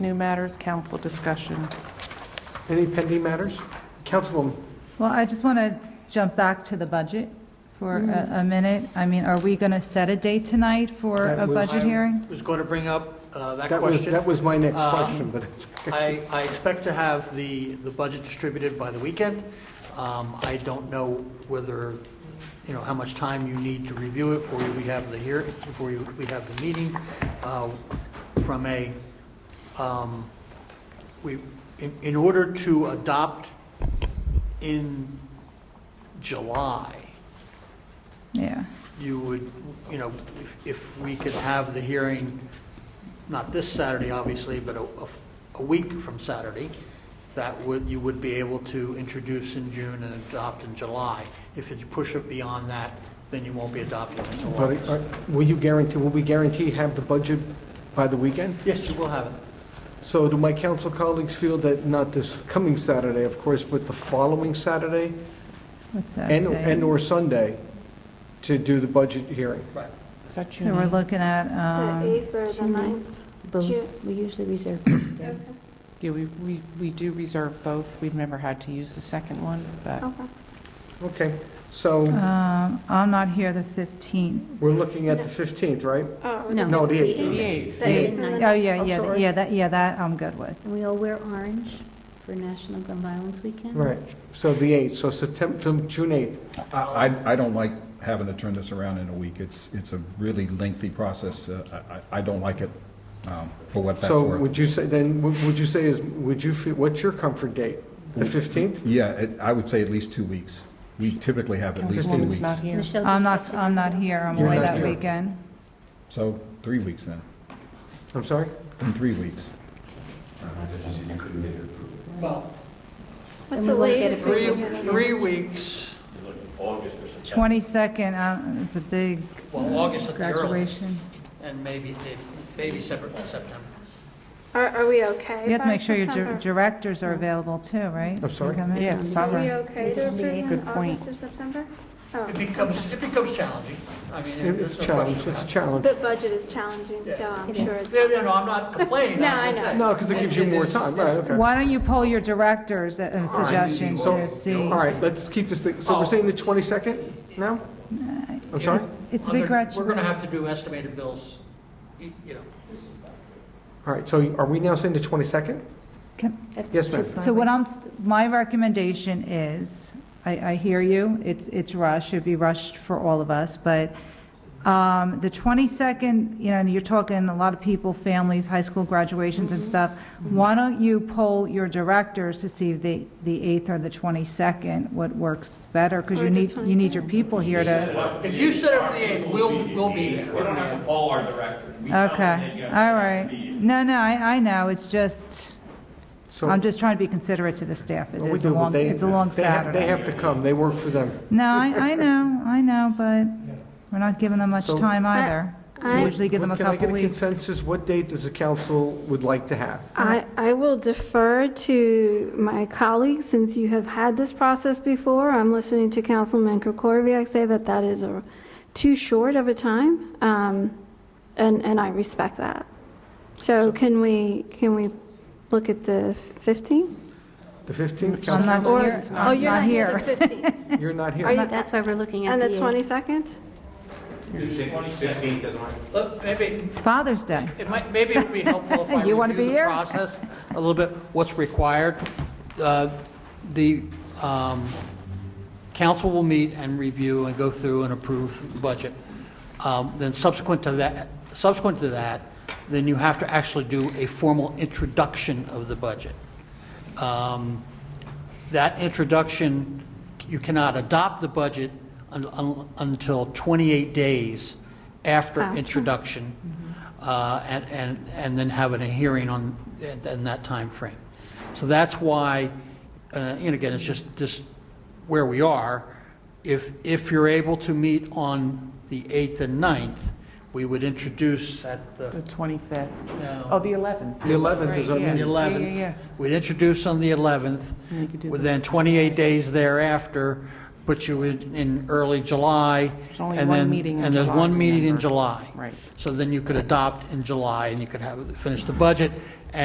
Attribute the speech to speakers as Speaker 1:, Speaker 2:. Speaker 1: New matters, council discussion.
Speaker 2: Any pending matters? Councilwoman,
Speaker 3: Well, I just want to jump back to the budget for a
Speaker 4: Mm.
Speaker 3: a minute. I mean, are we going to set a date tonight for
Speaker 2: That
Speaker 3: a
Speaker 2: was-
Speaker 3: budget hearing?
Speaker 5: I was going to bring up uh, that
Speaker 2: that was,
Speaker 5: question.
Speaker 2: that was my next
Speaker 5: Uh,
Speaker 2: question, but
Speaker 5: I, I expect to have the, the budget distributed by the weekend. Um, I don't know whether, you know, how much time you need to review it before we have the hear, before you- we have the meeting. Uh, From a, um, we, in, in order to adopt in July,
Speaker 3: Yeah.
Speaker 5: you would, you know, if, if we could have the hearing, not this Saturday, obviously, but a, a- a week from Saturday, that would, you would be able to introduce in June and adopt in July. If you push it beyond that, then you won't be adopting until
Speaker 2: but uh,
Speaker 5: August.
Speaker 2: are- will you guarantee, will we guarantee have the budget by the weekend?
Speaker 5: Yes, you will have it.
Speaker 2: So do my council colleagues feel that not this coming Saturday, of course, but the following Saturday
Speaker 3: What's that
Speaker 2: and,
Speaker 3: say?
Speaker 2: and/or Sunday to do the budget hearing?
Speaker 5: Right.
Speaker 1: Is that
Speaker 3: So we're
Speaker 1: you?
Speaker 3: looking at,
Speaker 4: The
Speaker 3: um,
Speaker 4: 8th or the
Speaker 6: June
Speaker 4: 9th? Ju-
Speaker 6: Both, we usually reserve both days.
Speaker 1: Yeah, we, we, we do reserve both. We've never had to use the second one,
Speaker 5: Oh.
Speaker 1: but
Speaker 4: Okay.
Speaker 2: Okay, so
Speaker 3: um, I'm not here the 15th.
Speaker 2: we're looking at the 15th, right?
Speaker 4: Oh,
Speaker 6: No.
Speaker 2: No, the
Speaker 4: The
Speaker 2: 8th.
Speaker 1: the
Speaker 4: 8th.
Speaker 1: eighth.
Speaker 4: The
Speaker 6: Yeah.
Speaker 4: 8th and the
Speaker 6: I'm
Speaker 3: Oh,
Speaker 4: 9th.
Speaker 3: yeah, yeah, th-
Speaker 2: sorry.
Speaker 3: yeah, that, yeah, that I'm good with.
Speaker 6: And we all wear orange for National Gun Violence Weekend.
Speaker 2: Right, so the 8th, so September, June 8th.
Speaker 5: Uh,
Speaker 7: I, I- I don't like having to turn this around in a week. It's, it's a really lengthy process. Uh, I, I I don't like it um, for what that's
Speaker 2: So
Speaker 7: worth.
Speaker 2: would you say, then, what would you say is, would you, feel? what's your comfort date? The
Speaker 7: Mm-hmm.
Speaker 2: 15th?
Speaker 7: Yeah, it- I would say at least two weeks. We typically have at least two
Speaker 1: Councilwoman's
Speaker 7: weeks.
Speaker 1: not here.
Speaker 6: Michelle,
Speaker 3: I'm
Speaker 6: does
Speaker 3: not,
Speaker 6: that-
Speaker 3: I'm not here, I'm
Speaker 7: You're
Speaker 3: away
Speaker 7: not
Speaker 3: that
Speaker 7: here.
Speaker 3: weekend.
Speaker 7: So three weeks then,
Speaker 2: I'm sorry?
Speaker 7: in three weeks.
Speaker 5: Well,
Speaker 4: What's
Speaker 6: we
Speaker 4: the
Speaker 6: won't get
Speaker 4: latest? we
Speaker 5: three,
Speaker 4: can get?
Speaker 5: three weeks,
Speaker 3: 22nd, uh, it's a big
Speaker 5: well, August at the earliest,
Speaker 3: graduation.
Speaker 5: and maybe, maybe separate in September.
Speaker 4: Are, are we okay?
Speaker 3: You have to
Speaker 4: by
Speaker 3: make sure your dir-
Speaker 4: September?
Speaker 3: directors are available too, right?
Speaker 2: I'm
Speaker 3: To
Speaker 2: sorry?
Speaker 3: come in?
Speaker 1: Yeah,
Speaker 4: Are we
Speaker 1: summer.
Speaker 4: okay to
Speaker 6: Yes.
Speaker 4: approve in
Speaker 1: Good point.
Speaker 4: August or September? Oh,
Speaker 5: It becomes, it becomes challenging. I mean, there's no
Speaker 2: It's a
Speaker 5: question
Speaker 2: challenge,
Speaker 5: about
Speaker 2: it's
Speaker 5: it.
Speaker 2: a challenge.
Speaker 4: the budget is challenging, so I'm sure it's.
Speaker 5: No, no, no, I'm not complaining.
Speaker 4: No,
Speaker 5: I'm
Speaker 4: I
Speaker 5: just
Speaker 4: know.
Speaker 5: saying.
Speaker 2: No, because it gives you more
Speaker 5: is-
Speaker 2: time, right, okay.
Speaker 3: Why don't you poll your directors uh, um, suggestions
Speaker 2: So,
Speaker 3: to see?
Speaker 2: all right, let's keep this thing, so we're saying the 22nd now?
Speaker 3: Uh,
Speaker 2: I'm sorry?
Speaker 3: It's a
Speaker 5: Under-
Speaker 3: big grudge.
Speaker 5: We're going to have to do estimated bills, y- you know.
Speaker 2: All right, so are we now saying the 22nd?
Speaker 6: That's
Speaker 2: Yes,
Speaker 6: too
Speaker 2: ma'am.
Speaker 6: far
Speaker 3: So what
Speaker 6: away.
Speaker 3: I'm, my recommendation is, I, I hear you, it's, it's rushed, it'd be rushed for all of us, but um, the 22nd, you know, and you're talking a lot of people, families, high school graduations
Speaker 2: Mm-hmm.
Speaker 3: and stuff. Why don't you poll your directors to see if the, the 8th or the 22nd, what works better? Because
Speaker 4: Or
Speaker 3: you
Speaker 4: the
Speaker 3: need, you need your people here to,
Speaker 5: If you set up the 8th, we'll, we'll be there.
Speaker 8: We don't have to poll our directors. We tell them that
Speaker 3: okay,
Speaker 8: you have to
Speaker 3: all
Speaker 8: have
Speaker 3: right.
Speaker 8: a meeting.
Speaker 3: No, no, I, I know, it's just,
Speaker 2: So-
Speaker 3: I'm just trying to be considerate to the staff. It
Speaker 2: Well, we
Speaker 3: is a
Speaker 2: do, but
Speaker 3: long,
Speaker 2: they-
Speaker 3: it's a long
Speaker 2: they have-
Speaker 3: Saturday.
Speaker 2: They have to come, they work for them.
Speaker 3: No, I, I know, I know, but we're not giving them much
Speaker 2: So-
Speaker 3: time either. We
Speaker 4: I-
Speaker 3: usually give them a
Speaker 2: Can I
Speaker 3: couple
Speaker 2: get a
Speaker 3: weeks.
Speaker 2: consensus, what date does the council would like to have?
Speaker 4: I, I will defer to my colleagues, since you have had this process before. I'm listening to Councilman Krokoviac say that that is a- too short of a time, um, and, and I respect that. So can we, can we look at the 15th?
Speaker 2: The 15th,
Speaker 3: I'm
Speaker 2: council?
Speaker 3: not
Speaker 4: Or-
Speaker 3: here,
Speaker 4: oh,
Speaker 3: I'm
Speaker 4: you're
Speaker 3: not here.
Speaker 4: the 15th.
Speaker 2: You're not here.
Speaker 4: Are you-
Speaker 6: That's why we're looking at
Speaker 4: And
Speaker 6: the
Speaker 4: the
Speaker 6: 8th.
Speaker 4: 22nd?
Speaker 8: Sixteenth doesn't work.
Speaker 5: Look, Maybe,
Speaker 3: It's Father's Day.
Speaker 5: it might, maybe it would be helpful if I
Speaker 3: You wanna
Speaker 5: review
Speaker 3: be
Speaker 5: the
Speaker 3: here?
Speaker 5: process a little bit, what's required. Uh, The um, council will meet and review and go through and approve the budget. Um, Then subsequent to that, subsequent to that, then you have to actually do a formal introduction of the budget. Um, That introduction, you cannot adopt the budget un- un- until 28 days after
Speaker 4: After.
Speaker 5: introduction, uh, and and and then having a hearing on, in- in that time frame. So that's why, uh, and again, it's just, just where we are. If, if you're able to meet on the 8th and 9th, we would introduce at the
Speaker 1: The 25th.
Speaker 5: No.
Speaker 1: Oh, the 11th.
Speaker 2: The 11th is our
Speaker 1: Right, yeah.
Speaker 5: on the
Speaker 2: meeting.
Speaker 1: Yeah, yeah, yeah.
Speaker 5: 11th. We'd introduce on the 11th,
Speaker 1: And you could do the-
Speaker 5: within 28 days thereafter, put you in in early July.
Speaker 1: There's only
Speaker 5: and
Speaker 1: one
Speaker 5: then-
Speaker 1: meeting in
Speaker 5: And there's
Speaker 1: July,
Speaker 5: one meeting in
Speaker 1: remember.
Speaker 5: July.
Speaker 1: Right.
Speaker 5: So then you could adopt in July, and you could have, finish the budget,